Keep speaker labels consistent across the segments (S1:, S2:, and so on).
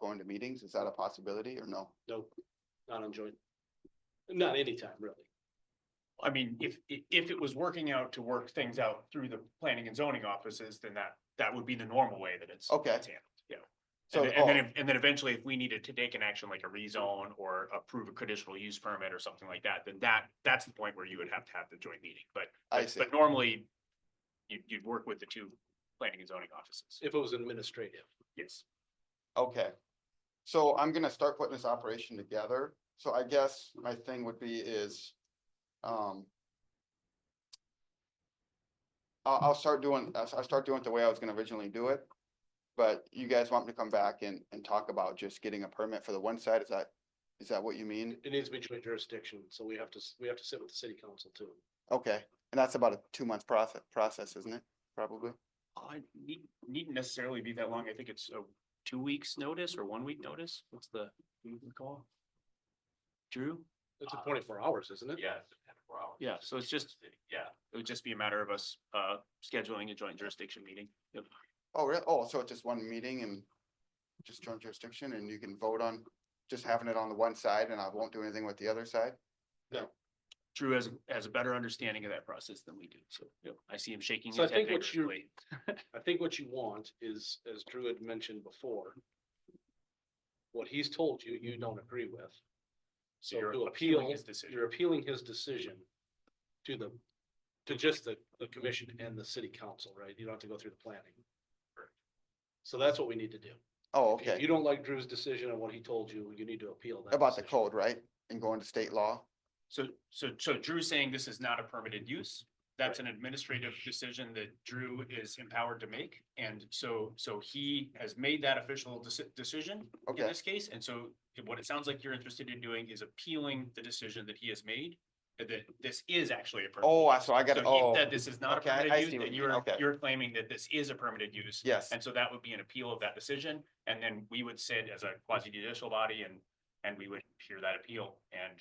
S1: going to meetings? Is that a possibility or no?
S2: No, not on joint. Not anytime, really.
S3: I mean, if, i- if it was working out to work things out through the planning and zoning offices, then that, that would be the normal way that it's.
S1: Okay.
S3: it's handled, Yeah.
S1: So,
S3: And then- and then,
S1: oh,
S3: if- and then eventually if we needed to take an action like a rezone or approve a conditional use permit or something like that, then that, that's the point where you would have to have the joint meeting, but.
S1: I
S3: but-
S1: see.
S3: But normally, you, you'd work with the two planning and zoning offices.
S2: If it was administrative.
S3: Yes.
S1: oh, Okay. So I'm gonna start putting this operation together. So I guess my thing would be is, um. I'll, I'll start doing, I'll, I'll start doing it the way I was gonna originally do it. But you guys want me to come back and, and talk about just getting a permit for the one side? Is that, is that what you mean?
S2: It needs to be joint jurisdiction, so we have to, s- we have to sit with the city council too.
S1: Okay, and that's about a two month process, process, isn't it? Probably.
S3: I need, needn't necessarily be that long. I think it's a two weeks notice or one week notice. What's the, you recall? Drew?
S2: It's
S3: Uh,
S2: a twenty-four hours, isn't it?
S3: Yeah. Yeah, so it's just, yeah, it would just be a matter of us, uh, scheduling a joint jurisdiction meeting. Yep.
S1: Oh, really? Oh, so it's just one meeting and just joint jurisdiction and you can vote on just having it on the one side and I won't do anything with the other side?
S3: Drew has, has a better understanding of that process than we do, so, yep, I see him shaking
S2: So I
S3: his head
S2: think what you,
S3: vigorously.
S2: I think what you want is, as Drew had mentioned before. What he's told you, you don't agree with. So
S3: you're
S2: to
S3: appealing
S2: appeal,
S3: his decision.
S2: you're appealing his decision to the, to just the, the commission and the city council, right? You don't have to go through the planning. So that's what we need to do.
S1: Oh,
S2: If
S1: okay.
S2: you don't like Drew's decision on what he told you, you need to appeal that.
S1: About the
S2: decision.
S1: code, right? And going to state law?
S3: So, so, so Drew's saying this is not a permitted use. That's an administrative decision that Drew is empowered to make. And so, so he has made that official deci- decision in
S1: Okay,
S3: this case. And so what it sounds like you're interested in doing is appealing the decision that he has made, that this is actually a permitted.
S1: oh, I,
S3: use.
S1: so I got,
S3: So he
S1: oh,
S3: said This is not a
S1: okay, I- I see
S3: permitted
S1: what
S3: use, and
S1: you mean,
S3: you're,
S1: okay.
S3: you're claiming that this is a permitted use.
S1: yes,
S3: And so that would be an appeal of that decision, and then we would sit as a quasi judicial body and, and we would hear that appeal and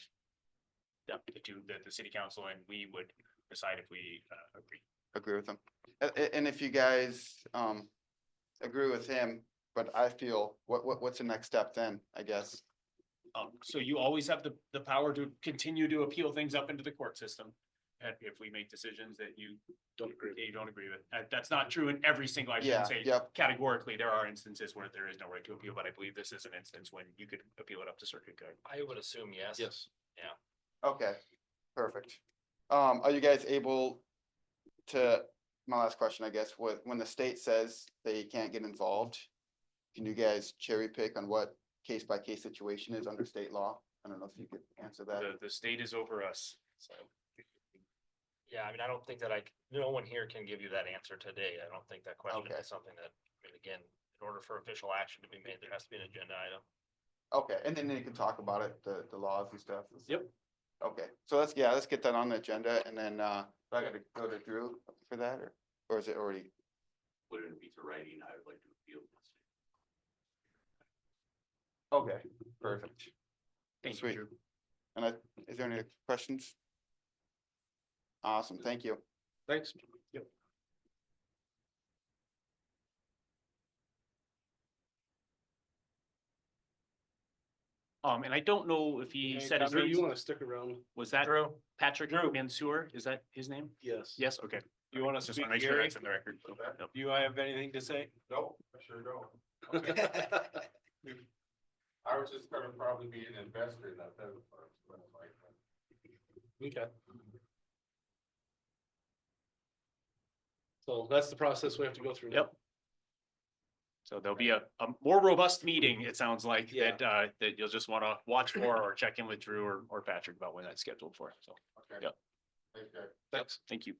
S3: the, the two, the, the city council and we would decide if we, uh, agree.
S1: agree with him. A- a- and if you guys, um, agree with him, but I feel, what, what, what's the next step then, I guess?
S3: Um, so you always have the, the power to continue to appeal things up into the court system. And if we make decisions that you
S2: Don't agree.
S3: that you don't agree with, that, that's not true in every single, I
S1: Yeah,
S3: shouldn't say
S1: yep,
S3: categorically, there are instances where there is no right to appeal, but I believe this is an instance when you could appeal it up to circuit court.
S4: I would assume yes.
S2: Yes.
S1: Okay, perfect. Um, are you guys able to, my last question, I guess, what, when the state says they can't get involved? Can you guys cherry pick on what case by case situation is under state law? I don't know if you could answer that.
S3: The, the state is over us, so.
S4: Yeah, I mean, I don't think that I, c- no one here can give you that answer today. I don't think that question
S1: Okay.
S4: is something that, I mean, again, in order for official action to be made, there has to be an agenda item.
S1: Okay, and then you can talk about it, the, the laws and stuff. and stuff.
S2: Yep.
S1: Okay, so let's, yeah, let's get that on the agenda and then, uh, do I gotta go to Drew for that or, or is it already?
S5: put it in piece of writing, I would like to appeal this.
S1: Okay, perfect.
S3: Thank you,
S1: Sweet.
S3: Drew.
S1: And I, is there any questions? Awesome, thank you.
S2: Thanks. Yep.
S3: Um, and I don't know if he
S2: Hey,
S3: said his
S2: Drew, You
S3: name,
S2: wanna stick around?
S3: was that
S4: Drew?
S3: Patrick Mansour, is that his name?
S2: Yes.
S3: Yes, okay.
S4: You want
S3: Just wanna make sure that's in the record. Yep.
S4: Do you have anything to say?
S5: No, I sure don't. I was just gonna probably be an investor in that, that was what I was like.
S2: Okay. So that's the process we have to go through. now.
S3: Yep. So there'll be a, a more robust meeting, it sounds like,
S2: Yeah.
S3: that, uh, that you'll just wanna watch for or check in with Drew or, or Patrick about when that's scheduled for, so,
S5: Okay.
S3: Yep.
S5: Thanks, guys.
S2: Thanks.
S3: thank you.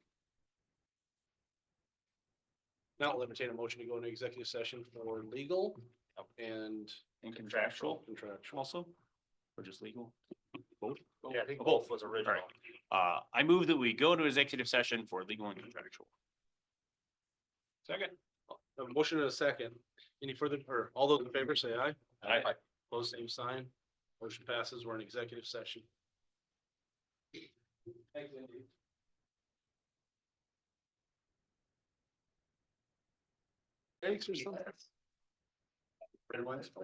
S2: Now I'll entertain a motion to go into executive session for legal
S4: Yep.
S2: and
S3: And contractual
S2: contractual.
S3: also, or just legal?
S4: Yeah, I think
S3: Oh,
S4: both was
S3: right.
S4: original.
S3: Uh, I move that we go into executive session for legal and contractual.
S2: Second. A motion and a second. Any further, or all those in favor say aye.
S3: Aye.
S2: Close same sign. Motion passes. We're in executive session. Thanks, Andy. Thanks for something. Everyone's.